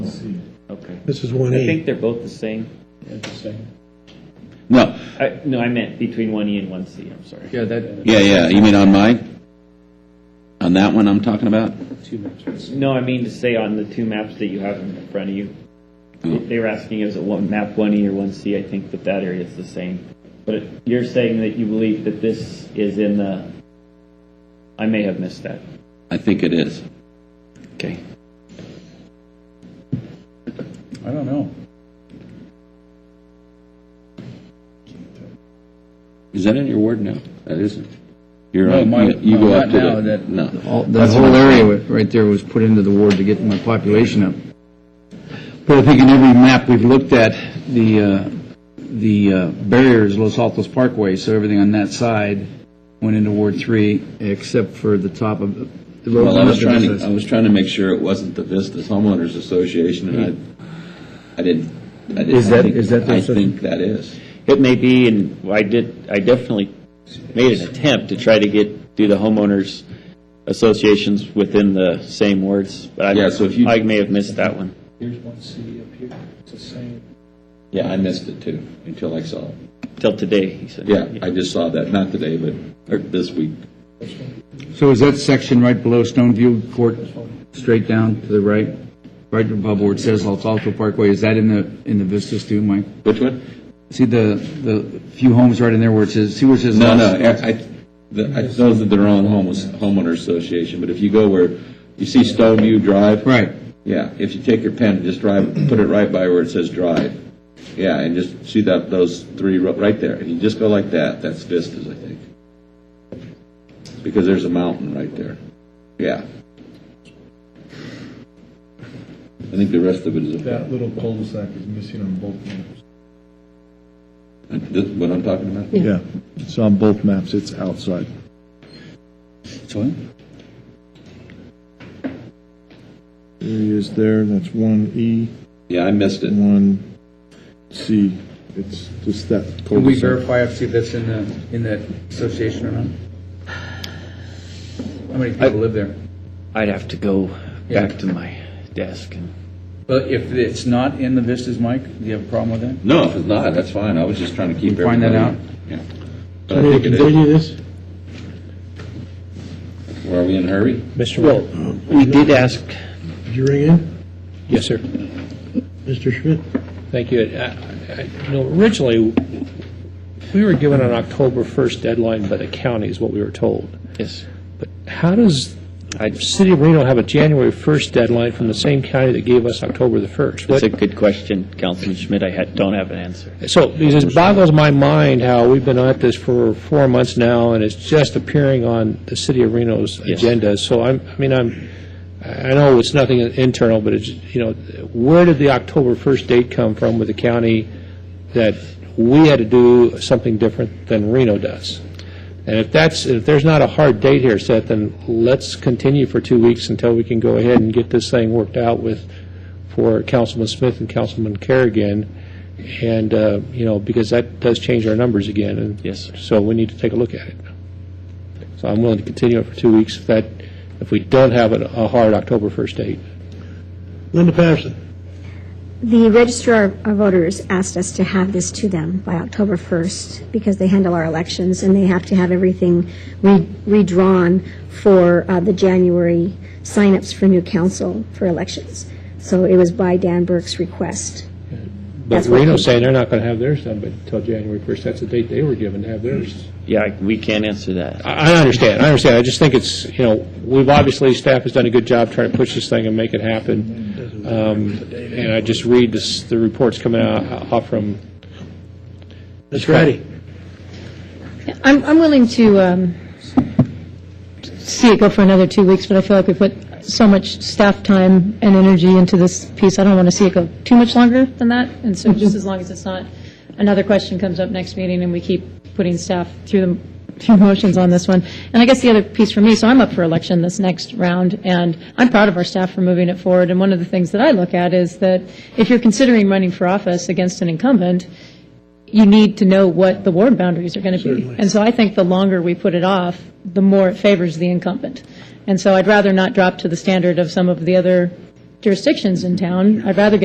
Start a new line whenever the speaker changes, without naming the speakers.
This is one
I think
E.
they're both the same.
No,
I, no, I meant between one E and one C, I'm sorry.
Yeah, that,
yeah, yeah, you mean on mine? On that one I'm talking about?
No, I mean to say on the two maps that you have in front of you, they were asking is it one map one E or one C, I think that that area is the same. But it- you're saying that you believe that this is in the, I may have missed that.
I think it is. Okay.
I don't know.
Is that in your ward now? That isn't. You're
No,
on,
my-
you- you
no,
go up
not
to
now,
the,
that-
no.
all, that whole area wa- right there was put into the ward to get my population up.
But I think in every map we've looked at, the, uh, the uh, barrier is Los Altos Parkway, so everything on that side went into Ward Three, except for the top of.
Well, I was trying to, I was trying to make sure it wasn't the Vistas Homeowners Association, and I, I didn't, I didn't.
Is
I
that-
think-
is that the
I
association?
think that is.
It may be, and I did, I definitely made an attempt to try to get, do the homeowners associations within the same words, but I,
Yeah, so if you-
I may have missed that one.
Here's one city up here, it's the same.
Yeah, I missed it too, until I saw it.
Till today, he said.
Yeah, I just saw that, not today, but, or this week.
So is that section right below Stoneview Court, straight down to the right, right above where it says Los Altos Parkway, is that in the, in the vistas too, Mike?
Which one?
See the, the few homes right in there where it says, see where it says?
No,
Los-
no, I, I- the- I know that they're on homeless, homeowner association, but if you go where, you see Stoneview Drive?
Right,
Yeah, if you take your pen and just drive, put it right by where it says drive. Yeah, and just see that, those three ro- right there. If you just go like that, that's Vistas, I think. Because there's a mountain right there. Yeah. I think the rest of it is, uh,
That little cul-de-sac is missing on both maps.
this, what I'm talking about?
Yeah, it's on both maps, it's outside. There he is there, that's one E,
Yeah, I missed it.
one C. It's just that
Can we
cul-de-sac.
verify, if see if that's in the, in that association or not? How many people live there?
I'd have to go
Yeah.
back to my desk and.
But if it's not in the vistas, Mike, do you have a problem with that?
No, if it's not, that's fine. I was just trying to keep
We find
everybody.
that
that out? Yeah. But I think it is.
Continue this?
Well, Are we in a hurry?
Mr. Well, we did ask,
Did you ring in,
yes, sir,
Mr. Schmidt?
thank you. Uh, I- You know, originally, we were given an October 1st deadline by the county, is what we were told.
Yes.
But how does
I-
City of Reno have a January 1st deadline from the same county that gave us October the 1st?
That's a
What-
good question, Councilman Schmidt. I had, don't have an answer.
So it just boggles my mind how we've been at this for four months now, and it's just appearing on the City of Reno's
Yes.
agenda. So I'm, I mean, I'm, I know it's nothing internal, but it's, you know, where did the October 1st date come from with the county that we had to do something different than Reno does? And if that's, if there's not a hard date here set, then let's continue for two weeks until we can go ahead and get this thing worked out with, for Councilman Smith and Councilman Kerrigan. And, uh, you know, because that does change our numbers again. and
Yes, sir.
So we need to take a look at it. So I'm willing to continue it for two weeks if that, if we don't have a a hard October 1st date.
Linda Patterson.
The registrar of voters asked us to have this to them by October 1st because they handle our elections and they have to have everything re- redrawn for uh, the January signups for new council for elections. So it was by Dan Burke's request.
But
That's what-
Reno's saying they're not going to have theirs done until January 1st. That's the date they were given to have theirs.
Yeah, I- we can't answer that.
I I understand, I understand. I just think it's, you know, we've obviously, staff has done a good job trying to push this thing and make it happen. Um, And I just read this, the reports coming out out from
That's righty.
I'm, I'm willing to um, see it go for another two weeks, but I feel like we put so much staff time and energy into this piece, I don't want to see it go too much longer than that, and so just as long as it's not, another question comes up next meeting, and we keep putting staff through the, through motions on this one. And I guess the other piece for me, so I'm up for election this next round, and I'm proud of our staff for moving it forward, and one of the things that I look at is that if you're considering running for office against an incumbent, you need to know what the ward boundaries are going to be. And so I think the longer we put it off, the more it favors the incumbent. And so I'd rather not drop to the standard of some of the other jurisdictions in town. I'd rather get